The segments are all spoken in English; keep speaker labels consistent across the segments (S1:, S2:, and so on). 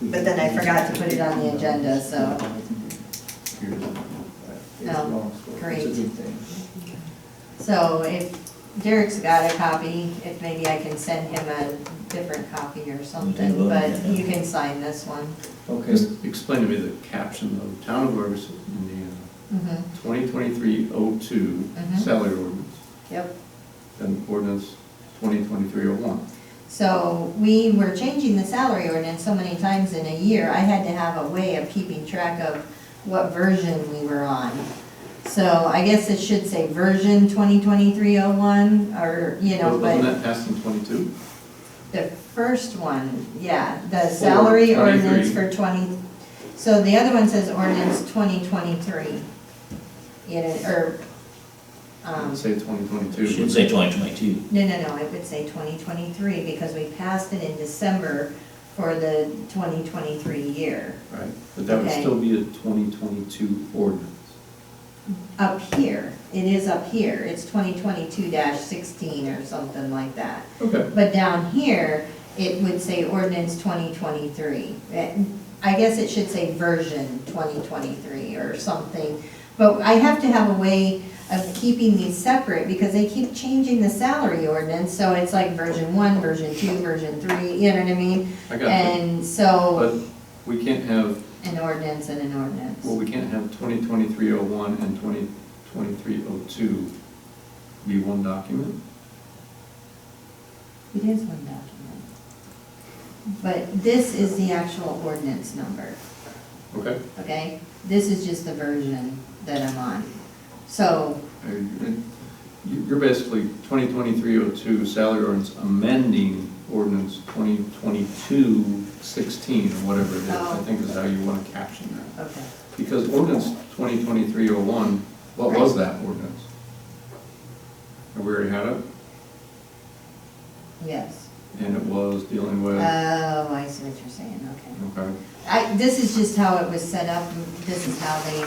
S1: but then I forgot to put it on the agenda, so. um,
S2: No,
S1: great.
S2: It's a good thing.
S1: So if Derek's got a copy, if maybe I can send him a different copy or something,
S3: look at
S1: but
S3: it.
S1: you can sign this one.
S2: Okay,
S4: Just explain to me the caption of town of Gorgas, Indiana,
S1: Mhm,
S4: Mm-hmm. 2023-02
S1: Mhm.
S4: salary ordinance,
S1: Yep.
S4: then ordinance 2023-01.
S1: So we were changing the salary ordinance so many times in a year, I had to have a way of keeping track of what version we were on. So I guess it should say version 2023-01, or, you know,
S4: Wasn't
S1: but
S4: that passed in 22?
S1: the first one, yeah, the salary
S4: For
S1: ordinance
S4: 23.
S1: for 20, so the other one says ordinance 2023. You know, or, um,
S4: Say 2022.
S3: Should say twenty twenty-two.
S1: no, no, no, I would say twenty twenty-three, because we passed it in December for the twenty twenty-three year,
S4: Right, but that would
S1: Okay.
S4: still be a 2022 ordinance.
S1: up here, it is up here, it's twenty twenty-two sixteen or something like that.
S4: Okay.
S1: But down here, it would say ordinance twenty twenty-three. Eh, I guess it should say version twenty twenty-three or something. But I have to have a way of keeping these separate because they keep changing the salary ordinance. So it's like version one, version two, version three, you know what I mean?
S4: I got that.
S1: And so,
S4: But we can't have,
S1: an ordinance and an ordinance.
S4: well, we can't have 2023-01 and 2023-02 be one document?
S1: It is one document. But this is the actual ordinance number.
S4: Okay?
S1: okay? This is just the version that I'm on. So,
S4: Uh, you- You're basically 2023-02 salary ordinance amending ordinance 2022-16 or whatever it is, I
S1: Oh.
S4: think is how you want to caption that.
S1: okay,
S4: Because ordinance 2023-01, what was that ordinance? And We already had it,
S1: yes.
S4: and it was dealing with,
S1: Oh, I see what you're saying, okay.
S4: okay,
S1: I, this is just how it was set up, and this is how they,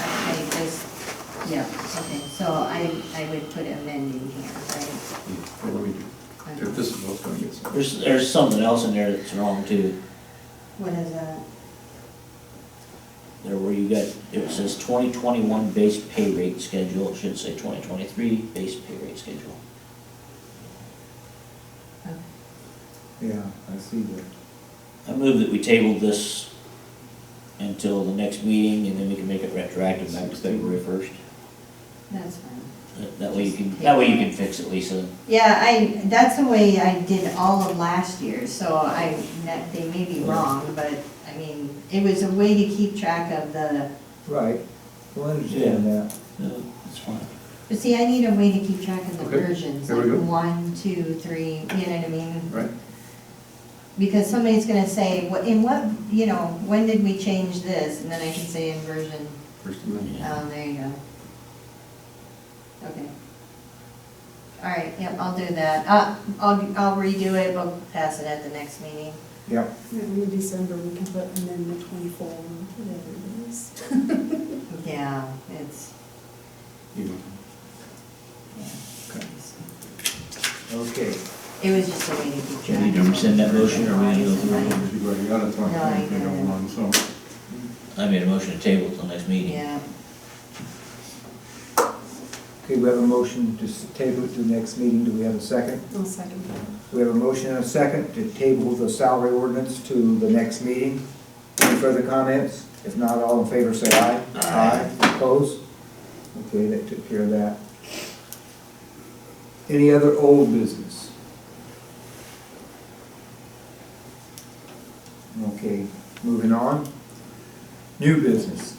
S1: I just, yeah, okay. So I, I would put amending here, right?
S4: well, let me, do- if this is what's going to get said.
S3: There's, there's something else in there that's wrong too,
S1: What is that?
S3: there where you got, it says twenty twenty-one base pay rate schedule, it should say twenty twenty-three base pay rate schedule.
S1: Oh,
S2: yeah, I see that.
S3: I move that we table this until the next meeting and then we can make it retroactive back to February first.
S1: That's fine.
S3: That- That way you can, that way you can fix it, Lisa.
S1: Yeah, I, that's the way I did all of last year, so I, that- they may be wrong, but, I mean, it was a way to keep track of the,
S2: Right, well, I understand that.
S3: No, it's fine.
S1: But see, I need a way to keep track of the
S4: Okay,
S1: versions,
S4: there we
S1: like
S4: go.
S1: one, two, three, you know what I mean?
S4: Right.
S1: Because somebody's gonna say, what, in what, you know, when did we change this? And then I can say in version,
S4: First Amendment.
S3: Yeah.
S1: oh, there you go. Okay. All right, yep, I'll do that. Uh, I'll, I'll redo it, we'll pass it at the next meeting.
S2: Yep,
S5: In December, we can put amendment twenty-four, whatever it is.
S1: Yeah, it's,
S4: You know.
S1: yeah.
S2: okay.
S1: It was just a way to keep
S3: Do you
S1: track.
S3: need to rescind that motion, or we need to go through it?
S4: You already got it, so I
S1: No, I
S4: think they got
S1: got it.
S4: one, so.
S3: I made a motion to table till next meeting.
S1: Yeah.
S2: Okay, we have a motion to s- table it to the next meeting. Do we have a second?
S5: I'll second that.
S2: We have a motion and a second to table the salary ordinance to the next meeting. Any further comments? If not, all in favor say aye.
S3: Aye.
S2: Opposed? Okay, that took care of that. Any other old business? Okay, moving on. New business.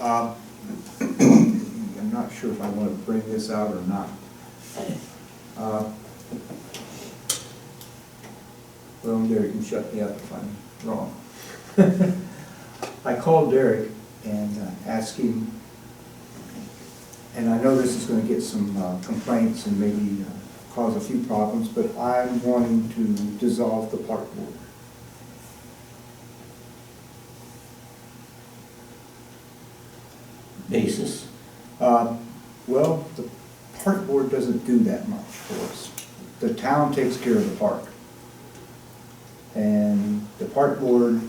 S2: Uh, I'm not sure if I want to bring this out or not. Uh, well, Derek can shut me up if I'm wrong. I called Derek and uh, asked him, and I know this is gonna get some uh, complaints and maybe uh, cause a few problems, but I'm wanting to dissolve the park board.
S3: Basis.
S2: Uh, Well, the park board doesn't do that much for us. The town takes care of the park. And the park board